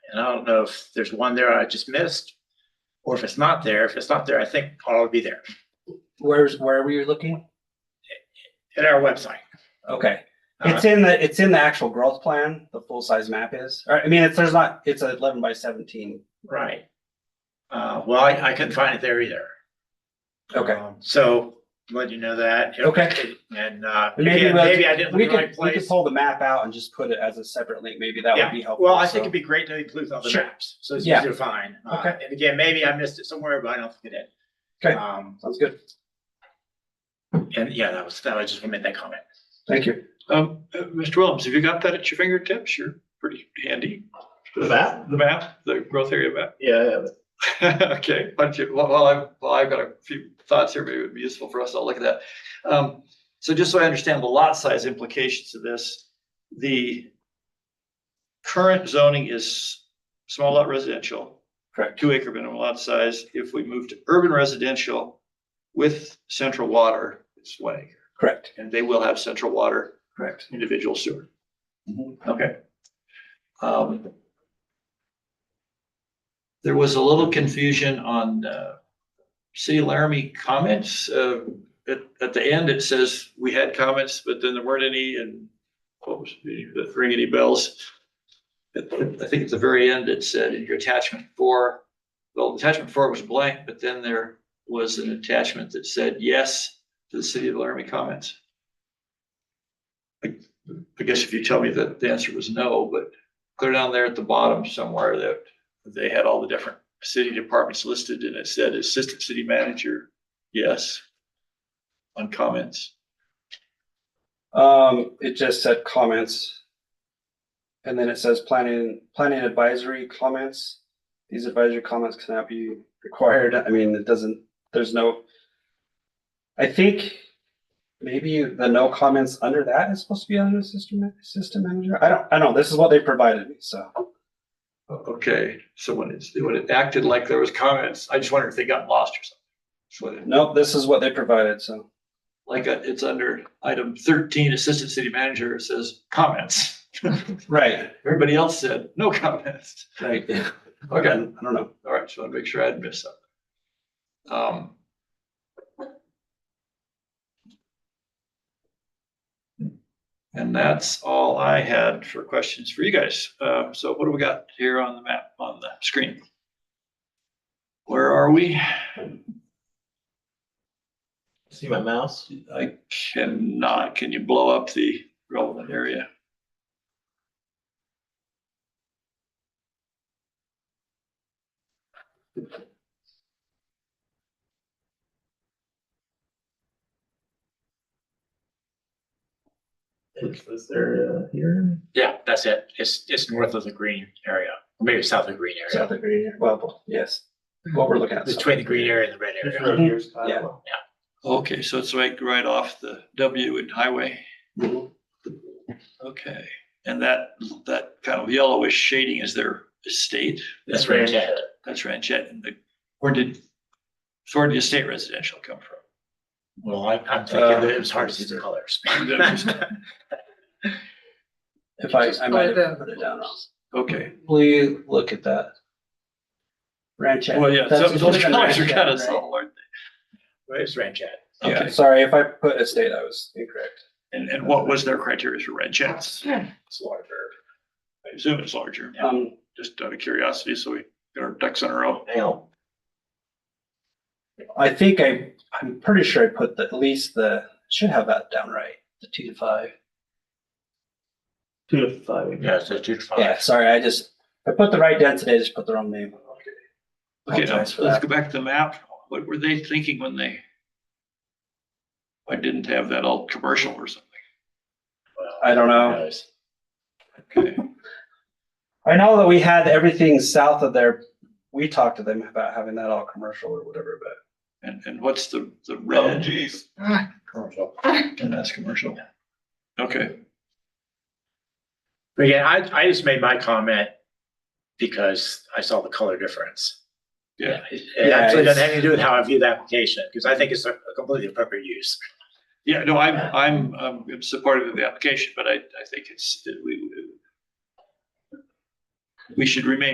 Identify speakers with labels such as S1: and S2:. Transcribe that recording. S1: And I don't know if there's one there I just missed, or if it's not there. If it's not there, I think Paul will be there
S2: Where's, where were you looking?
S1: at our website.
S2: Okay.
S1: Uh-huh.
S2: It's in the, it's in the actual growth plan, the full-size map is, or, I mean, it's, there's not, it's a eleven by seventeen.
S1: Right. Uh, well, I, I couldn't find it there either.
S2: Okay.
S1: Um, So let you know that.
S2: Okay.
S1: And, uh,
S2: Maybe
S1: again,
S2: we'll-
S1: maybe I didn't
S2: We
S1: look in the right
S2: could, we could
S1: place.
S2: pull the map out and just put it as a separate link, maybe that would
S1: Yeah.
S2: be helpful.
S1: Well, I think
S2: so.
S1: it'd be great to include all the
S2: Sure.
S1: maps, so it's
S2: Yeah.
S1: easier to find. Uh,
S2: Okay.
S1: And again, maybe I missed it somewhere, but I don't think it did.
S2: Okay.
S1: Um,
S2: Sounds good,
S1: and yeah, that was, that was just, I made that comment.
S2: thank you.
S3: Um, uh, Mr. Williams, have you got that at your fingertips? You're pretty handy.
S4: The map?
S3: The map, the growth area map.
S4: Yeah,
S3: Okay, why don't you, well, well, I've, well, I've got a few thoughts here, maybe it would be useful for us to look at that. Um, so just so I understand the lot size implications of this, the current zoning is small lot residential.
S2: Correct.
S3: Two acre minimum lot size. If we move to urban residential with central water, it's one acre,
S2: Correct,
S3: and they will have central water,
S2: correct.
S3: individual sewer.
S2: Mhm.
S3: Okay. Um, There was a little confusion on uh, City of Laramie comments. Uh, At, at the end, it says we had comments, but then there weren't any and what was, the- that ring any bells? At- I think at the very end, it said in your attachment four, well, attachment four was blank, but then there was an attachment that said yes to the City of Laramie comments. I guess if you tell me that the answer was no, but clear down there at the bottom somewhere that they had all the different city departments listed and it said assistant city manager, yes. On comments.
S2: Um, it just said comments. And then it says planning, planning advisory comments. These advisory comments cannot be required. I mean, it doesn't, there's no. I think maybe the no comments under that is supposed to be under the system, ma- system manager. I don't, I don't, this is what they provided me, so.
S3: O- Okay, so when it's, when it acted like there was comments, I just wondered if they got lost or something. So it-
S2: Nope, this is what they provided, so.
S3: Like uh, it's under item thirteen, assistant city manager, it says comments.
S2: Right,
S3: Everybody else said no comments.
S2: right. I
S3: Okay.
S2: don't know.
S3: All right, so I make sure I didn't miss something. Um. And that's all I had for questions for you guys. Uh, so what do we got here on the map, on the screen? Where are we?
S4: see my mouse?
S3: I cannot, can you blow up the relevant area?
S4: Is this there, uh, here?
S1: Yeah, that's it. It's, it's north of the green area, or maybe south of the green area.
S2: South of Green, well, yes, what we're looking at. so.
S1: Between the green area and the red
S4: This
S1: area.
S4: road here's
S2: Yeah.
S4: Kiowa.
S3: Okay, so it's right, right off the W and highway.
S2: Mhm.
S3: Okay, and that, that kind of yellowish shading is their estate?
S1: That's Ranchette.
S3: That's Ranchette, and the, where did, so where did estate residential come from?
S1: Well, I, I'm thinking that it was hard to see the colors.
S2: If I,
S5: Just
S2: I might
S5: by the-
S2: have put it down wrong.
S3: Okay,
S2: Please look at that. Ranchette.
S3: well, yeah,
S2: That's-
S3: so those colors are
S2: Ranchette,
S3: kind of
S2: right?
S3: subtle, aren't
S1: It's Ranchette.
S3: they?
S2: Yeah,
S3: Okay,
S2: sorry, if I put estate, I was incorrect.
S3: and, and what was their criteria for Ranchettes?
S1: It's larger.
S3: I assume it's larger,
S1: Yeah.
S2: Um,
S3: just out of curiosity, so we get our ducks in a row.
S4: Hang on.
S2: I think I, I'm pretty sure I put the, at least the, should have that down right, the two to five.
S4: Two to five.
S1: Yeah, so two to
S2: Yeah,
S1: five.
S2: sorry, I just, I put the right density, I just put the wrong name.
S3: Okay, now,
S2: Apologize
S3: let's
S2: for
S3: go
S2: that.
S3: back to the map. What were they thinking when they? I didn't have that all commercial or something,
S2: I don't know.
S1: Nice.
S3: okay?
S2: I know that we had everything south of there. We talked to them about having that all commercial or whatever, but.
S3: And, and what's the, the red? Oh, geez. And that's commercial. Okay,
S1: But yeah, I, I just made my comment because I saw the color difference.
S3: Yeah.
S1: It- It
S2: Yeah,
S1: actually doesn't
S2: it's-
S1: have anything to do with how I view the application, because I think it's a completely appropriate use.
S3: yeah, no, I'm, I'm, um, I'm supportive of the application, but I, I think it's, we, we should remain